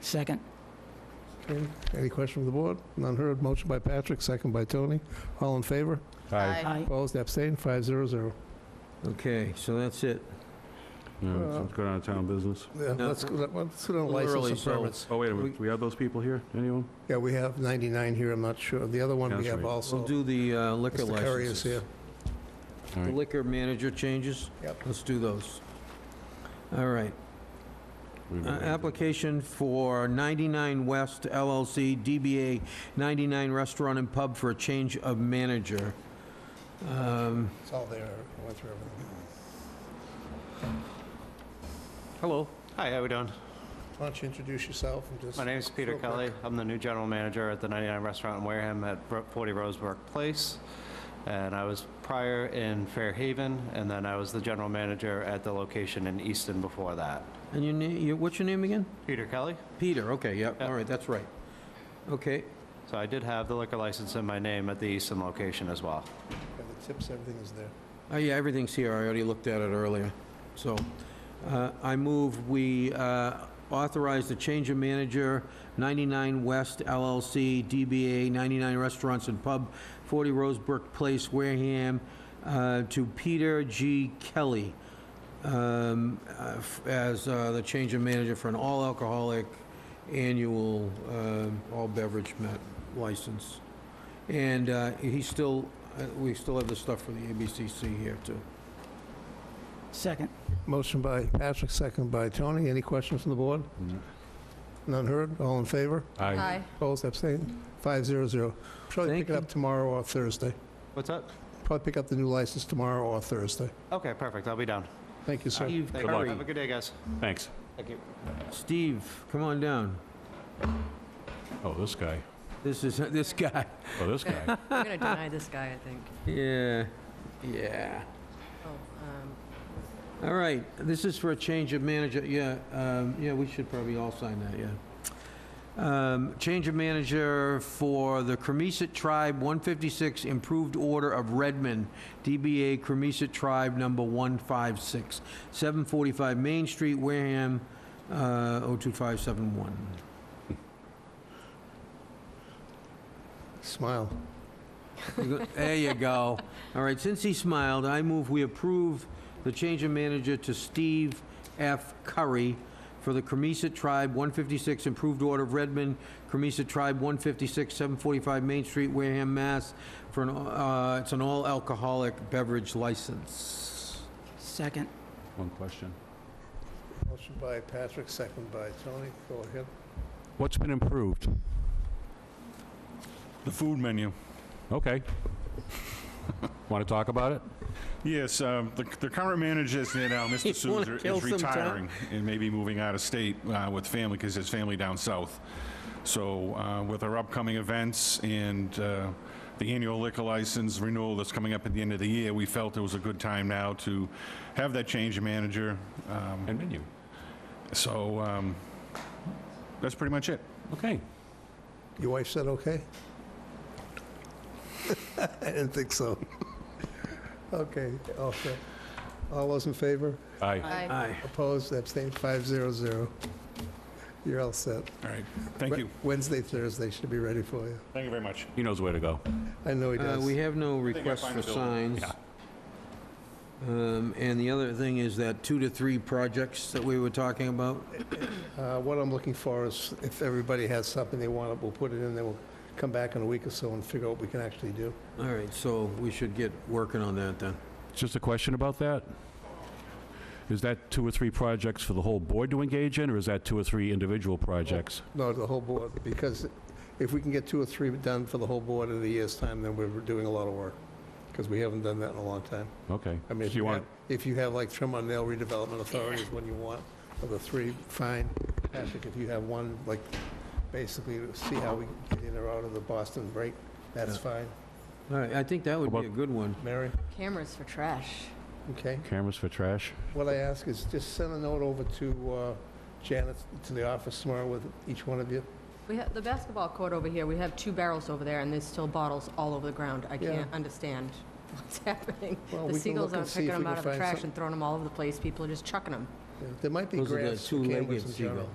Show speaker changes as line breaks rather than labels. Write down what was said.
Second.
Okay, Any question from the board? None heard. Motion by Patrick, second by Tony. All in favor?
Aye.
Aye.
Opposed, abstained, 500.
Okay, so that's it.
Yeah,
Uh,
Let's go down to town business.
Yeah, Let's go let's go down to
Literally,
license
so-
and permits.
Oh, wait a minute, we have those people here, anyone?
Yeah, we have 99 here, I'm not sure. The other one we
That's
have
right.
also.
We'll do the uh, liquor
Mr. Curry is
licenses.
here.
All
The
right.
liquor manager changes?
Yep.
Let's do those. All right.
We've
Uh,
got-
Application for 99 West LLC, DBA 99 Restaurant and Pub for a change of manager. Um,
It's all there. I went through everything.
Hello.
Hi, how we doing?
Why don't you introduce yourself and just...
My name is Peter
real quick.
Kelly. I'm the new general manager at the 99 Restaurant in Wareham at Bro- 40 Roseburg Place. And I was prior in Fairhaven, and then I was the general manager at the location in Easton before that.
And your name, your- what's your name again?
Peter Kelly.
Peter, okay, yeah,
Yeah.
all right, that's right. Okay,
So I did have the liquor license in my name at the Easton location as well.
Yeah, The tips, everything is there.
oh, yeah, everything's here, I already looked at it earlier. So, uh, I move we uh, authorize the change of manager, 99 West LLC, DBA 99 Restaurants and Pub, 40 Rosebrook Place, Wareham, uh, to Peter G. Kelly um, uh, f- as uh, the change of manager for an all-alcoholic annual um, all-beverage met license. And uh, he's still, uh, we still have the stuff for the ABCC here, too.
Second.
Motion by Patrick, second by Tony. Any questions from the board?
Mm.
None heard. All in favor?
Aye.
Opposed, abstained, 500. Probably
Thank
pick it up
you.
tomorrow or Thursday.
What's up?
Probably pick up the new license tomorrow or Thursday.
Okay, perfect. I'll be down.
Thank you, sir.
Steve
Thank you.
Curry.
Have a good day, guys.
Thanks.
Thank you.
Steve, come on down.
Oh, this guy,
This is, this guy.
oh, this guy.
We're gonna deny this guy, I think.
Yeah, yeah.
Oh, um,
All right, this is for a change of manager, yeah, um, yeah, we should probably all sign that, yeah. Um, Change of manager for the Cremisa Tribe 156 Improved Order of Redmond, DBA Cremisa Tribe Number 156, 745 Main Street, Wareham, uh, 02571.
Smile.
You go- There you go. All right, since he smiled, I move we approve the change of manager to Steve F. Curry for the Cremisa Tribe, 156 Improved Order of Redmond, Cremisa Tribe, 156, 745 Main Street, Wareham, Mass. For an, uh, it's an all-alcoholic beverage license.
Second.
One question.
Motion by Patrick, second by Tony. Go ahead.
What's been improved?
The food menu.
Okay. Want to talk about it?
Yes,
uh,
um, the, the current manager is there now, Mr.
You wanna
Souza,
kill
is
some time?
retiring and maybe moving out of state uh, with family, because his family down south. So uh, with our upcoming events and uh, the annual liquor license renewal that's coming up at the end of the year, we felt it was a good time now to have that change of manager. Um,
And menu?
So um, that's pretty much it.
Okay.
Your wife said okay? I didn't think so. Okay, all set. All those in favor?
Aye.
I-
Aye.
Opposed, abstained, 500. You're all set.
All right, thank
Wed-
you.
Wednesday, Thursday should be ready for you.
Thank you very much.
He knows where to go.
I know he
Uh,
does.
We have no
think I
requests
find
for
the building.
signs. Um, And the other thing is that two to three projects that we were talking about.
Uh, What I'm looking for is if everybody has something they want, we'll put it in, then we'll come back in a week or so and figure out what we can actually do.
All right, so we should get working on that then.
Just a question about that? Is that two or three projects for the whole board to engage in, or is that two or three individual projects?
No, the whole board, because if we can get two or three done for the whole board in a year's time, then we're doing a lot of work, because we haven't done that in a long time.
Oh. Okay.
I mean,
So
if
you
you
want-
have, if you have like trim on nail redevelopment authority is one you want, of the three, fine. Patrick, if you have one, like, basically to see how we get in or out of the Boston break, that's
Yeah.
fine.
All right, I think that would be a
About-
good one.
Mary,
Cameras for trash.
okay?
Cameras for trash?
What I ask is just send a note over to uh, Janet, to the office tomorrow with each one of you.
We have, the basketball court over here, we have two barrels over there, and there's still bottles all over the ground. I
Yeah.
can't understand what's happening.
Well, we
The
can
seagulls
look and
aren't
see if
picking
we
them
can
out of the
find
trash
some-
and throwing them all over the place. People are just chucking them.
Yeah, There might be
Those are the
grants for cameras
two-legged
in general.
seagulls.